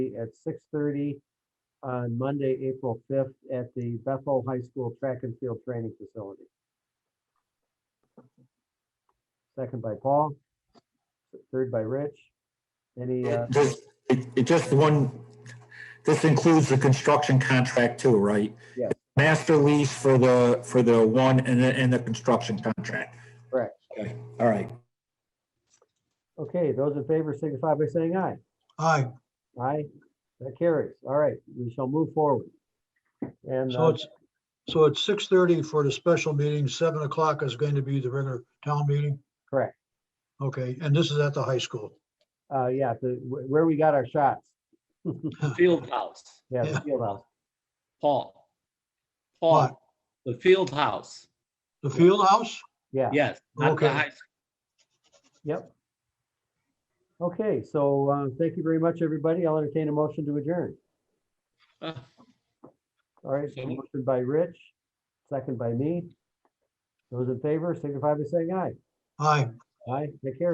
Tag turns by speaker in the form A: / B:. A: at six thirty on Monday, April fifth, at the Bethel High School Track and Field Training Facility. Second by Paul, third by Rich. Any, uh,
B: Does, it, it just one, this includes the construction contract too, right?
A: Yeah.
B: Master lease for the, for the one and the, and the construction contract.
A: Correct.
B: Okay, all right.
A: okay, those in favor signify by saying aye.
C: Aye,
A: Aye, that carries. All right, we shall move forward. And,
C: so
A: uh,
C: it's, so it's six thirty for the special meeting, seven o'clock is going to be the regular town meeting.
A: correct,
C: Okay, and this is at the high school.
A: uh, yeah, the, wh- where we got our shots.
D: Field house,
A: Yeah, the
C: Yeah.
A: field house.
D: Paul.
C: What?
D: Paul, the field house,
C: The field house?
A: yeah.
D: yes, not
C: Okay.
D: the high school.
A: Yep. Okay, so uh, thank you very much, everybody. I'll entertain a motion to adjourn.
D: Uh,
A: All right,
D: So moved.
A: motion by Rich, second by me. Those in favor signify by saying aye.
C: Aye.
A: Aye, take care.